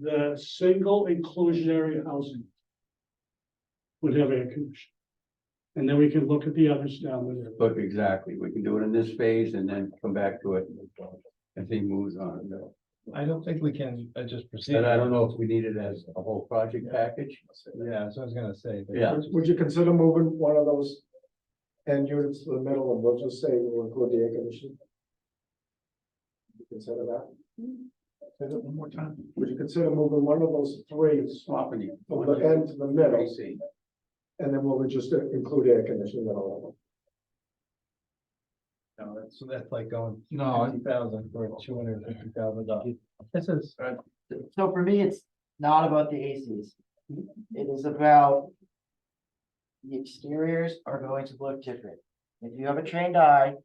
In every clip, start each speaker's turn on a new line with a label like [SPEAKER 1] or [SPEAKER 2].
[SPEAKER 1] the single inclusionary housing would have air conditioning. And then we can look at the others down the road.
[SPEAKER 2] But exactly, we can do it in this phase and then come back to it as he moves on.
[SPEAKER 3] I don't think we can, uh, just proceed.
[SPEAKER 2] And I don't know if we need it as a whole project package.
[SPEAKER 3] Yeah, so I was gonna say. but-
[SPEAKER 2] Yeah.
[SPEAKER 4] Would- Would you consider moving one of those end units to the middle and we'll just say we'll include the air conditioning? Would you Consider that?
[SPEAKER 2] Say that one more time.
[SPEAKER 4] Would you consider moving one of those three
[SPEAKER 2] Swapping you.
[SPEAKER 4] from the end to the middle
[SPEAKER 2] AC.
[SPEAKER 4] and then we'll just include air conditioning in all of them?
[SPEAKER 3] No, that's- So that's like going
[SPEAKER 2] No, I-
[SPEAKER 3] fifty thousand for two hundred and fifty thousand dollars. This is,
[SPEAKER 5] So for me, it's not about the ACs. It is about. The exteriors are going to look different. If you have a trained eye,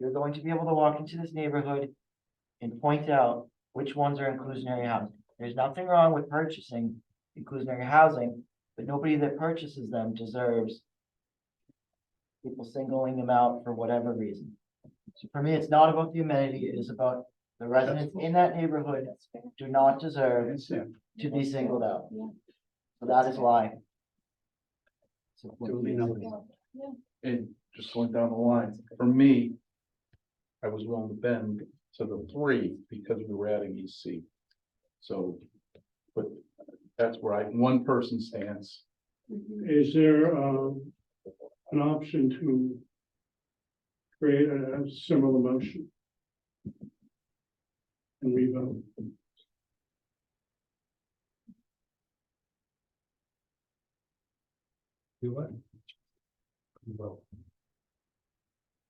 [SPEAKER 5] you're going to be able to walk into this neighborhood. And point out which ones are inclusionary housing. There's nothing wrong with purchasing inclusionary housing, but nobody that purchases them deserves. People singling them out for whatever reason. So for me, it's not about the amenity, it is about the residents in that neighborhood do not deserve
[SPEAKER 2] That's it.
[SPEAKER 5] to be singled out.
[SPEAKER 6] Yeah.
[SPEAKER 5] So that is why. So what
[SPEAKER 2] Duly
[SPEAKER 5] is
[SPEAKER 2] noted.
[SPEAKER 5] it?
[SPEAKER 7] and just going down the line, for me. I was willing to bend to the three because we were adding EC. So, but that's where I, one person stands.
[SPEAKER 1] Mm-hmm. Is there, um, an option to create a a similar motion? And we vote.
[SPEAKER 3] do what?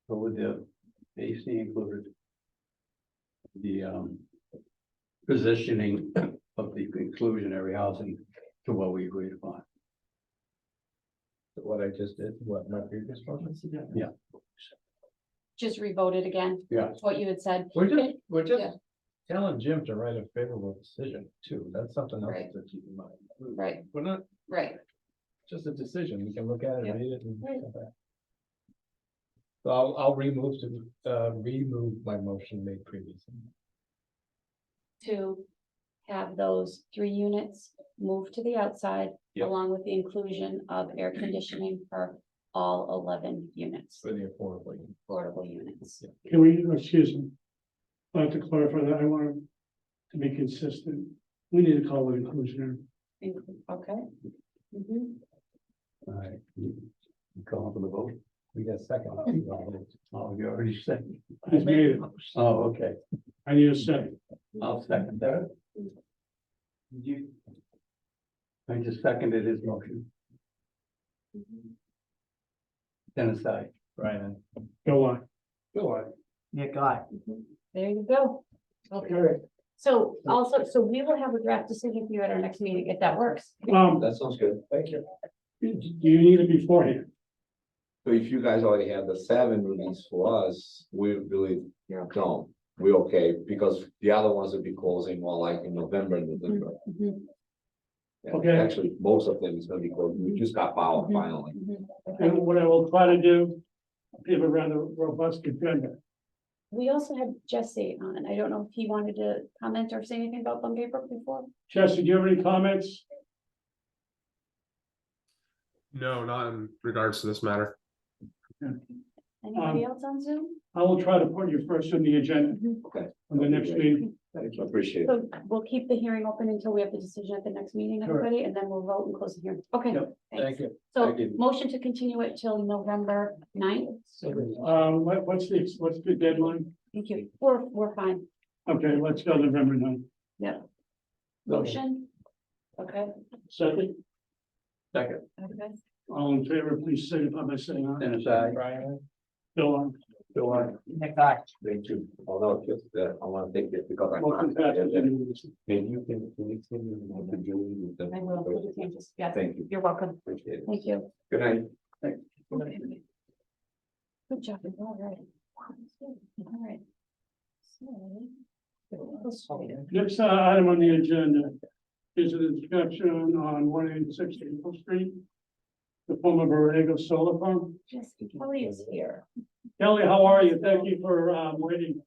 [SPEAKER 2] So with the AC included. The um. Positioning of the inclusionary housing to what we agreed upon.
[SPEAKER 3] What I just did, what my previous one?
[SPEAKER 6] Just revote it again.
[SPEAKER 2] Yeah.
[SPEAKER 6] That's What you had said.
[SPEAKER 3] We're just, we're
[SPEAKER 6] Yeah.
[SPEAKER 3] just telling Jim to write a favorable decision too. That's something else
[SPEAKER 6] Right.
[SPEAKER 3] to keep in mind.
[SPEAKER 6] Right,
[SPEAKER 3] We're not,
[SPEAKER 6] right.
[SPEAKER 3] just a decision. We can look at it,
[SPEAKER 6] Yeah.
[SPEAKER 3] read it and
[SPEAKER 6] Right.
[SPEAKER 3] come back. So I'll, I'll remove to, uh, remove my motion made previously.
[SPEAKER 6] To have those three units move to the outside.
[SPEAKER 2] Yep.
[SPEAKER 6] Along with the inclusion of air conditioning for all eleven units,
[SPEAKER 3] For the affordable. unit.
[SPEAKER 6] affordable units.
[SPEAKER 1] Can we, excuse me, I'd like to clarify that, I want to be consistent, we need to call it inclusionary.
[SPEAKER 6] Inclu- Okay. Mhm.
[SPEAKER 2] All right. Call for the vote.
[SPEAKER 3] We got a second.
[SPEAKER 2] Oh, you already said.
[SPEAKER 1] I've made it,
[SPEAKER 2] Oh, okay.
[SPEAKER 1] I need a second,
[SPEAKER 2] I'll second that. You. I just seconded his motion.
[SPEAKER 8] Mm-hmm.
[SPEAKER 2] Dennis, I.
[SPEAKER 3] Brian.
[SPEAKER 1] go on.
[SPEAKER 3] Go on.
[SPEAKER 5] Yeah, God.
[SPEAKER 6] There you go.
[SPEAKER 4] Okay.
[SPEAKER 6] So also, so we will have a draft decision for you at our next meeting, if that works.
[SPEAKER 1] Um,
[SPEAKER 8] That sounds good.
[SPEAKER 4] Thank you.
[SPEAKER 1] do you need it beforehand?
[SPEAKER 8] So if you guys already have the seven released for us, we really
[SPEAKER 6] You're okay.
[SPEAKER 8] don't. We okay, because the other ones will be closing more like in November and December.
[SPEAKER 6] Mhm,
[SPEAKER 8] And
[SPEAKER 1] Okay.
[SPEAKER 8] Actually, most of them is gonna be closed. We just got power
[SPEAKER 6] Mhm.
[SPEAKER 8] finally.
[SPEAKER 6] mhm.
[SPEAKER 1] And what I will try to do, we have a rather robust agenda.
[SPEAKER 6] We also had Jesse on, I don't know if he wanted to comment or say anything about Bungay Brook before.
[SPEAKER 1] Chester, do you have any comments?
[SPEAKER 9] No, not in regards to this matter.
[SPEAKER 6] Anybody else on Zoom?
[SPEAKER 1] I will try to put you first on the agenda
[SPEAKER 8] Okay.
[SPEAKER 1] on the next meeting.
[SPEAKER 8] Thank you. Appreciate it.
[SPEAKER 6] So we'll keep the hearing open until we have the decision at the next meeting,
[SPEAKER 1] Correct.
[SPEAKER 6] everybody, and then we'll vote and close the hearing. Okay,
[SPEAKER 1] Yep.
[SPEAKER 3] Thank
[SPEAKER 6] thanks.
[SPEAKER 3] you.
[SPEAKER 6] So
[SPEAKER 2] Thank you.
[SPEAKER 6] motion to continue it till November 9th.
[SPEAKER 1] Um, what, what's the, what's the deadline?
[SPEAKER 6] Thank you. We're, we're fine.
[SPEAKER 1] Okay, let's go November ninth.
[SPEAKER 6] Motion? Okay,
[SPEAKER 1] Second,
[SPEAKER 2] Second,
[SPEAKER 6] okay.
[SPEAKER 1] all in favor, please signify by saying aye.
[SPEAKER 2] Dennis, I.
[SPEAKER 3] Brian.
[SPEAKER 1] Bill, on.
[SPEAKER 2] Bill, I.
[SPEAKER 5] Yeah, God.
[SPEAKER 8] Thank you. Although, just, uh, I wanna take it because I.
[SPEAKER 1] Motion passes unanimously.
[SPEAKER 8] Maybe you can, can you send me what you're doing with them?
[SPEAKER 6] I will, put the changes. yes.
[SPEAKER 8] Thank you.
[SPEAKER 6] You're welcome.
[SPEAKER 8] Appreciate it.
[SPEAKER 6] Thank you.
[SPEAKER 8] Good night.
[SPEAKER 6] Good job. All right. All right. So.
[SPEAKER 1] Next uh, item on the agenda is an inspection on one eighty-six Maple Street. The former Borrego Solar Farm.
[SPEAKER 6] Just, Kelly is here.
[SPEAKER 1] Kelly, how are you? Thank you for um, waiting.